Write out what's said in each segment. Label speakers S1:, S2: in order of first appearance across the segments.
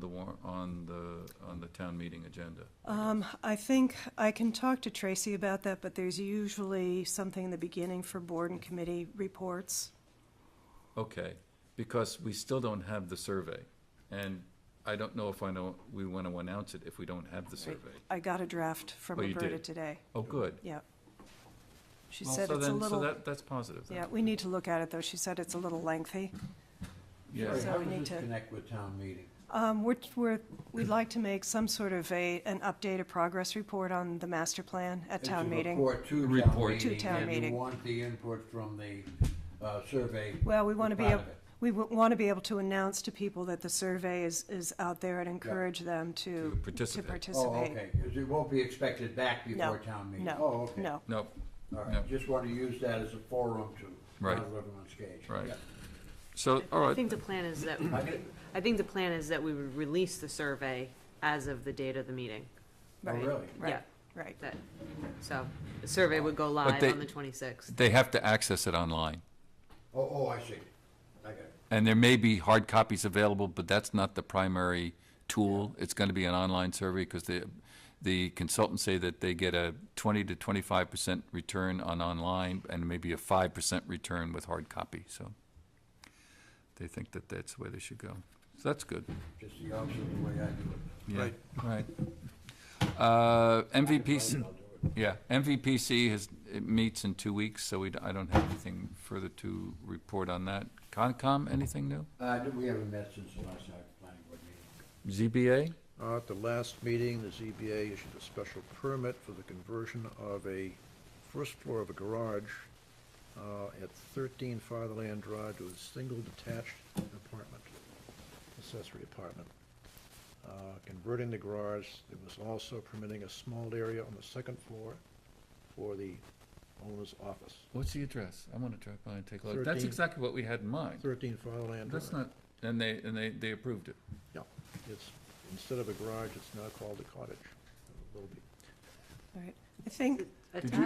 S1: the war, on the, on the town meeting agenda?
S2: Um, I think I can talk to Tracy about that, but there's usually something in the beginning for board and committee reports.
S1: Okay, because we still don't have the survey, and I don't know if I know, we want to announce it if we don't have the survey.
S2: I got a draft from
S1: Oh, you
S2: Roberta
S1: did?
S2: today.
S1: Oh, good.
S2: Yep. She
S1: Well,
S2: said
S1: so
S2: it's a
S1: then- So
S2: little,
S1: that, that's positive then.
S2: yeah, we need to look at it, though. She said it's a little lengthy.
S1: Yeah.
S2: So
S3: How
S2: we
S3: does
S2: need
S3: this
S2: to-
S3: Connect with town meeting.
S2: Um, we're, we're, we'd like to make some sort of a, an updated progress report on the master plan at
S3: It's a
S2: town meeting.
S3: Report to town
S1: Report.
S3: meeting.
S2: To town
S3: And
S2: meeting.
S3: you want the input from the uh, survey.
S2: Well, we want to be,
S3: part
S2: ab-
S3: of it,
S2: we want to be able to announce to people that the survey is, is out there and encourage them to,
S1: To
S2: to
S1: participate.
S3: Oh,
S2: participate.
S3: okay, because it won't be expected back
S2: No,
S3: before town meeting. Oh,
S2: No,
S3: okay.
S2: no.
S1: No,
S3: All
S1: no.
S3: right, just want to use that as a forum to
S1: Right.
S3: not let them on stage.
S1: Right.
S3: Yeah.
S1: so, all
S4: I
S1: right,
S4: think the plan is that, I think the plan is that we would release the survey as of the date of the meeting.
S3: Oh,
S2: Right,
S3: really?
S2: Right,
S4: Yeah.
S2: right.
S4: That, so, the survey would go live
S1: they-
S4: on the twenty-sixth.
S1: they have to access it online,
S3: Oh, oh, I see. I got it.
S1: and there may be hard copies available, but that's not the primary tool. It's going to be an online survey, because the, the consultants say that they get a twenty to twenty-five percent return on online, and maybe a five percent return with hard copy, so they think that that's the way they should go. So that's good.
S3: Just the opposite of the way I do it.
S1: Yeah, right. Uh, MVPC, yeah, MVPC has, it meets in two weeks, so we, d- I don't have anything further to report on that. Concom, anything new?
S3: Uh, we haven't met since the last night planning board meeting.
S1: ZBA?
S5: Uh, At the last meeting, the ZBA issued a special permit for the conversion of a first floor of a garage uh, at 13 Fatherland Drive to a single detached apartment, accessory apartment. Uh, Converting the garage, it was also permitting a small area on the second floor for the owner's office.
S1: What's the address? I want to drive by and take a look. That's
S5: Thirteen.
S1: exactly what we had in mind.
S5: 13 Fatherland Drive.
S1: That's not, and they, and they, they approved it.
S5: Yeah, it's, instead of a garage, it's now called a cottage. It will be.
S2: Right. I think,
S1: Did you-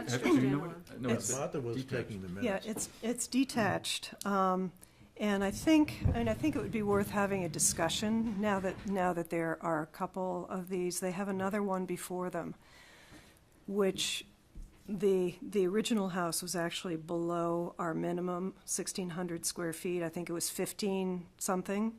S4: Attached
S1: have-
S4: or
S1: do you know
S4: standalone?
S1: what- no, it's
S5: Martha was
S1: detached.
S5: taking the minutes.
S2: yeah, it's, it's detached. Um, and I think, and I think it would be worth having a discussion now that, now that there are a couple of these. They have another one before them, which the, the original house was actually below our minimum, sixteen hundred square feet. I think it was fifteen something.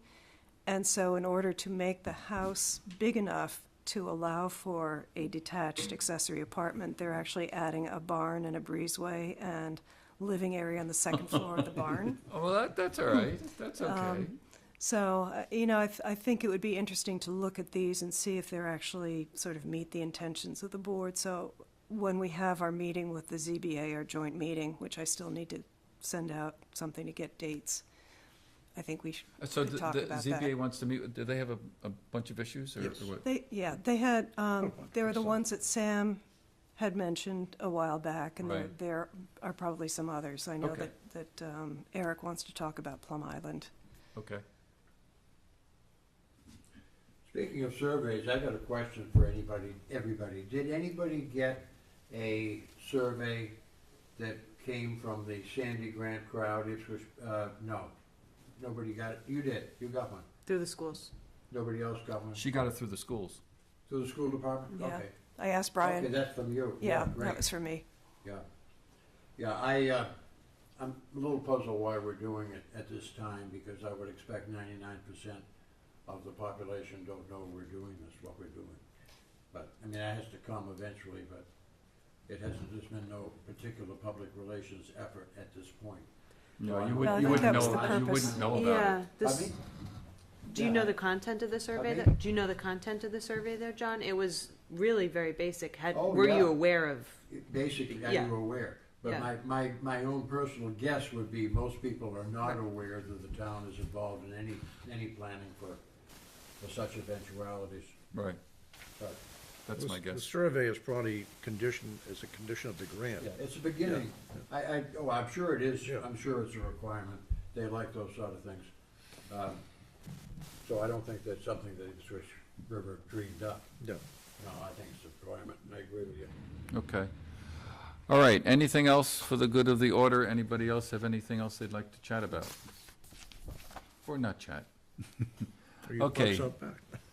S2: And so in order to make the house big enough to allow for a detached accessory apartment, they're actually adding a barn and a breezeway and living area on the second floor of the barn.
S1: Oh, well, that, that's all right. That's
S2: Um,
S1: okay.
S2: So, uh, you know, I, th- I think it would be interesting to look at these and see if they're actually sort of meet the intentions of the board. So when we have our meeting with the ZBA, our joint meeting, which I still need to send out something to get dates, I think we should
S1: Uh, So
S2: could
S1: the,
S2: talk
S1: the
S2: about that.
S1: ZBA wants to meet, with- do they have a, a bunch of issues or or
S5: Yes.
S1: what?
S2: They, yeah, they had, um, they were the
S5: Some.
S2: ones that Sam had mentioned a while back, and there,
S1: Right.
S2: there are probably some others. I know
S1: Okay.
S2: that, that, um, Eric wants to talk about Plum Island.
S1: Okay.
S3: Speaking of surveys, I got a question for anybody, everybody. Did anybody get a survey that came from the Sandy Grant crowd? It was, uh, no. Nobody got it. You did. You got one.
S4: Through the schools.
S3: Nobody else got one.
S1: She got it through the schools.
S3: To the school department?
S2: Yeah.
S3: Okay.
S2: I asked
S3: Okay,
S2: Brian,
S3: that's from you.
S2: yeah, that
S3: great.
S2: was for me.
S3: Yeah, yeah, I, uh, I'm a little puzzled why we're doing it at this time, because I would expect ninety-nine percent of the population don't know we're doing this, what we're doing. But, I mean, that has to come eventually, but it hasn't, there's been no particular public relations effort at this point. No,
S1: No,
S3: I
S1: you
S3: don't-
S2: Well, I
S1: wouldn't, you
S2: think
S1: wouldn't
S2: that was
S1: know,
S2: the
S1: you
S2: purpose.
S1: wouldn't know about
S4: Yeah,
S1: it.
S4: this,
S3: Pardon me?
S4: do you know
S3: Yeah.
S4: the content of the survey
S3: Pardon me?
S4: that, do you know the content of the survey there, John? It was really very basic. Had,
S3: Oh,
S4: were
S3: yeah.
S4: you aware of?
S3: Basically, are
S4: Yeah.
S3: you aware? But
S4: Yeah.
S3: my, my, my own personal guess would be most people are not aware that the town is involved in any, any planning for, for such eventualities.
S1: Right,
S3: But
S1: that's
S5: The-
S1: my
S5: The
S1: guess.
S5: survey is probably conditioned, as a condition of the grant.
S3: Yeah, it's a beginning. I, I, oh, I'm sure it is,
S5: Yeah.
S3: I'm sure it's a requirement. They like those sort of things. Um, So I don't think that's something that Swiss River dreamed up.
S5: No.
S3: No, I think it's a requirement, and I agree with you.
S1: Okay. All right, anything else for the good of the order? Anybody else have anything else they'd like to chat about? Or not chat?
S5: Are you folks
S1: Okay.
S5: out back?